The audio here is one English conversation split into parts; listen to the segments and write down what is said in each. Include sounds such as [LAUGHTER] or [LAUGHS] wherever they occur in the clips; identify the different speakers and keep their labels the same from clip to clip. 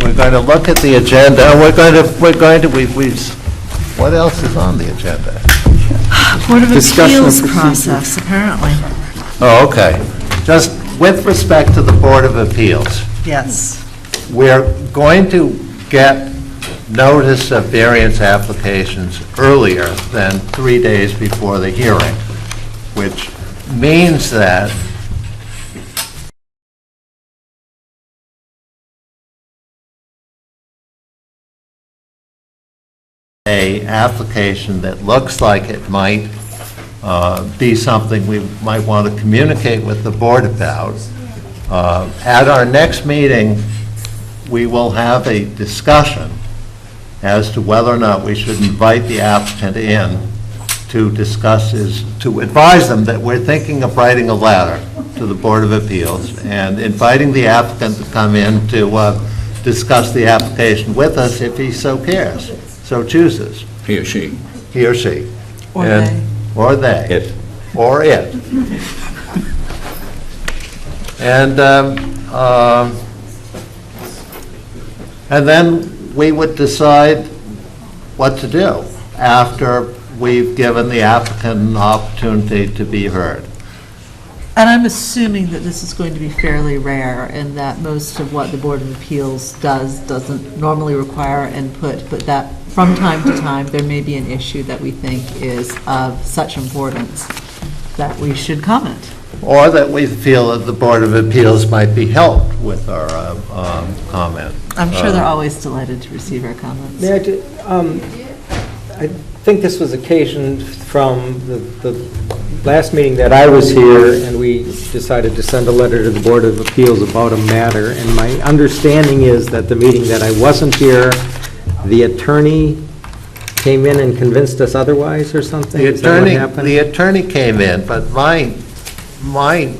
Speaker 1: We're going to look at the agenda, and we're going to, we're going to, we've, we've, what else is on the agenda?
Speaker 2: Board of
Speaker 3: Discussion of
Speaker 2: Appeals
Speaker 3: procedure.
Speaker 2: process, apparently.
Speaker 1: Oh, okay. Just with respect to the Board of Appeals,
Speaker 2: Yes.
Speaker 1: we're going to get notice of variance applications earlier than three days before the hearing, which means that a application that looks like it might uh, be something we might want to communicate with the board about. Uh, At our next meeting, we will have a discussion as to whether or not we should invite the applicant in to discuss his, to advise them that we're thinking of writing a letter to the Board of Appeals and inviting the applicant to come in to uh, discuss the application with us if he so cares, so chooses,
Speaker 4: he or she.
Speaker 1: he or she.
Speaker 2: Or
Speaker 1: And-
Speaker 2: they.
Speaker 1: Or they.
Speaker 4: It.
Speaker 1: Or it. And, um, um, and then we would decide what to do after we've given the applicant an opportunity to be heard.
Speaker 5: And I'm assuming that this is going to be fairly rare, and that most of what the Board of Appeals does doesn't normally require input, but that from time to time, there may be an issue that we think is of such importance that we should comment.
Speaker 1: Or that we feel that the Board of Appeals might be helped with our um, um, comment.
Speaker 5: I'm sure
Speaker 1: Uh,
Speaker 5: they're always delighted to receive our comments.
Speaker 3: Mayor, do- um, I think this was occasioned from the the last meeting that I was here, and we decided to send a letter to the Board of Appeals about a matter, and my understanding is that the meeting that I wasn't here, the attorney came in and convinced us otherwise or something?
Speaker 1: The
Speaker 3: Is that what
Speaker 1: attorney,
Speaker 3: happened?
Speaker 1: the attorney came in, but my, my,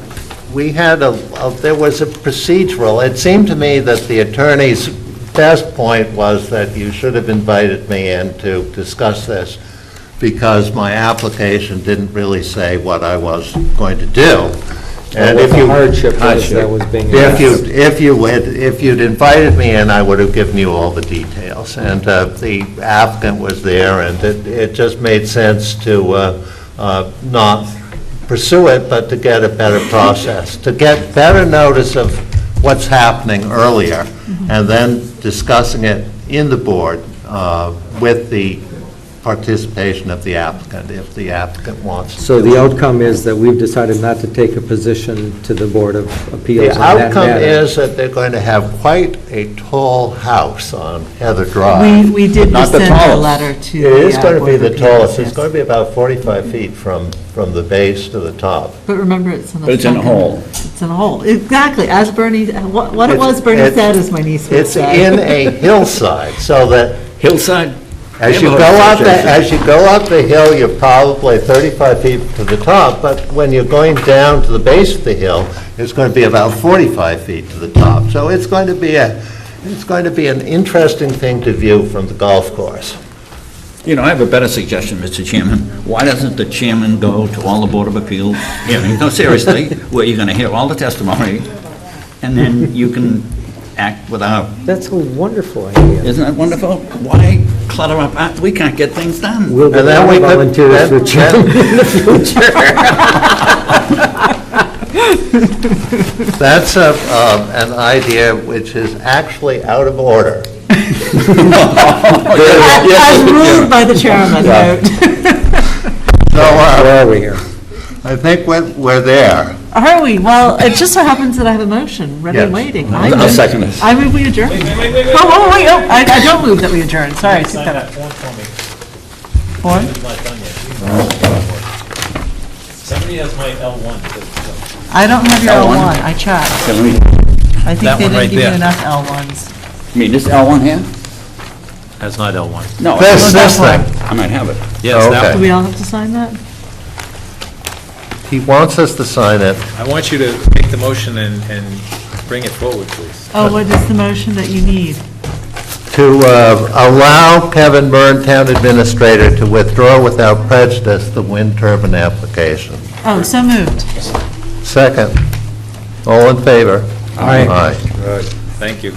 Speaker 1: we had a, a- there was a procedural, it seemed to me that the attorney's best point was that you should have invited me in to discuss this, because my application didn't really say what I was going to do.
Speaker 3: Or
Speaker 1: And
Speaker 3: what
Speaker 1: if
Speaker 3: the
Speaker 1: you
Speaker 3: hardship was that was being
Speaker 1: If you,
Speaker 3: addressed.
Speaker 1: if you had, if you'd invited me in, I would have given you all the details. And uh, the applicant was there, and it, it just made sense to uh, uh, not pursue it, but to get a better process, to get better notice of what's happening earlier, and then discussing it in the board uh, with the participation of the applicant, if the applicant wants to
Speaker 3: So the outcome is that we've decided not to take a position to the Board of
Speaker 1: The
Speaker 3: Appeals on that
Speaker 1: outcome
Speaker 3: matter.
Speaker 1: is that they're going to have quite a tall house on Heather
Speaker 5: We,
Speaker 1: Drive.
Speaker 5: we did
Speaker 4: Not the
Speaker 5: send a
Speaker 4: tallest.
Speaker 5: letter to
Speaker 1: It
Speaker 5: the.
Speaker 1: is
Speaker 5: uh,
Speaker 1: going to
Speaker 5: Board
Speaker 1: be
Speaker 5: of
Speaker 1: the
Speaker 5: Appeals,
Speaker 1: tallest, it's
Speaker 5: yes.
Speaker 1: going to be about 45 feet from, from the base to the top.
Speaker 5: But remember, it's in a.
Speaker 4: But it's in a
Speaker 5: sunken-
Speaker 4: hole.
Speaker 5: It's in a hole, exactly, as Bernie, what what it
Speaker 1: It's-
Speaker 5: was Bernie
Speaker 1: it's-
Speaker 5: said is my niece would
Speaker 1: It's
Speaker 5: say. [LAUGHS]
Speaker 1: in a hillside, so that
Speaker 4: Hillside?
Speaker 1: as you go
Speaker 4: Neighborhood
Speaker 1: up, the-
Speaker 4: Association.
Speaker 1: as you go up the hill, you're probably 35 feet to the top, but when you're going down to the base of the hill, it's going to be about 45 feet to the top. So it's going to be a, it's going to be an interesting thing to view from the golf course.
Speaker 4: You know, I have a better suggestion, Mr. Chairman. Why doesn't the chairman go to all the Board of Appeals hearings? No, [LAUGHS] seriously, where you're going to hear all the testimony, and then you can act without,
Speaker 3: That's a wonderful idea.
Speaker 4: isn't that wonderful? Why clutter up? Uh, We can't get things done.
Speaker 3: We'll
Speaker 1: And then we
Speaker 3: have
Speaker 1: could-
Speaker 3: volunteers for
Speaker 1: that-
Speaker 3: chairman
Speaker 1: [LAUGHS]
Speaker 3: in the future. [LAUGHS]
Speaker 1: That's a, um, an idea which is actually out of
Speaker 3: [LAUGHS]
Speaker 1: order.
Speaker 5: As ruled by the chairman, no.
Speaker 1: So uh,
Speaker 3: Where are we here?
Speaker 1: I think we're, we're there.
Speaker 5: [LAUGHS] Are we? Well, it just so happens that I have a motion, ready
Speaker 1: Yes.
Speaker 5: and waiting. I
Speaker 4: I'll
Speaker 5: move-
Speaker 4: second this.
Speaker 5: I move we adjourn. Oh, oh, wait, oh, I, I don't move that we adjourn, sorry. I took that out.
Speaker 6: One for me.
Speaker 5: Four?
Speaker 6: Somebody has my L1.
Speaker 5: I don't have your
Speaker 4: L1.
Speaker 5: L1, I checked.
Speaker 4: Okay, let me-
Speaker 5: I think
Speaker 6: That
Speaker 5: they
Speaker 6: one
Speaker 5: didn't
Speaker 6: right
Speaker 5: give you
Speaker 6: there.
Speaker 5: enough L1s.
Speaker 4: You mean this L1 here?
Speaker 6: That's not L1.
Speaker 4: No.
Speaker 1: This,
Speaker 4: I-
Speaker 1: this thing,
Speaker 4: I might have it.
Speaker 6: Yes,
Speaker 1: Okay.
Speaker 6: that
Speaker 5: Do we all have to sign that?
Speaker 1: he wants us to sign it.
Speaker 6: I want you to make the motion and, and bring it forward, please.
Speaker 5: Oh, what is the motion that you need?
Speaker 1: to uh, allow Kevin Byrne, Town Administrator, to withdraw without prejudice the wind turbine application.
Speaker 5: Oh, so moved.
Speaker 1: Second, all in favor? Aye.
Speaker 6: Thank you.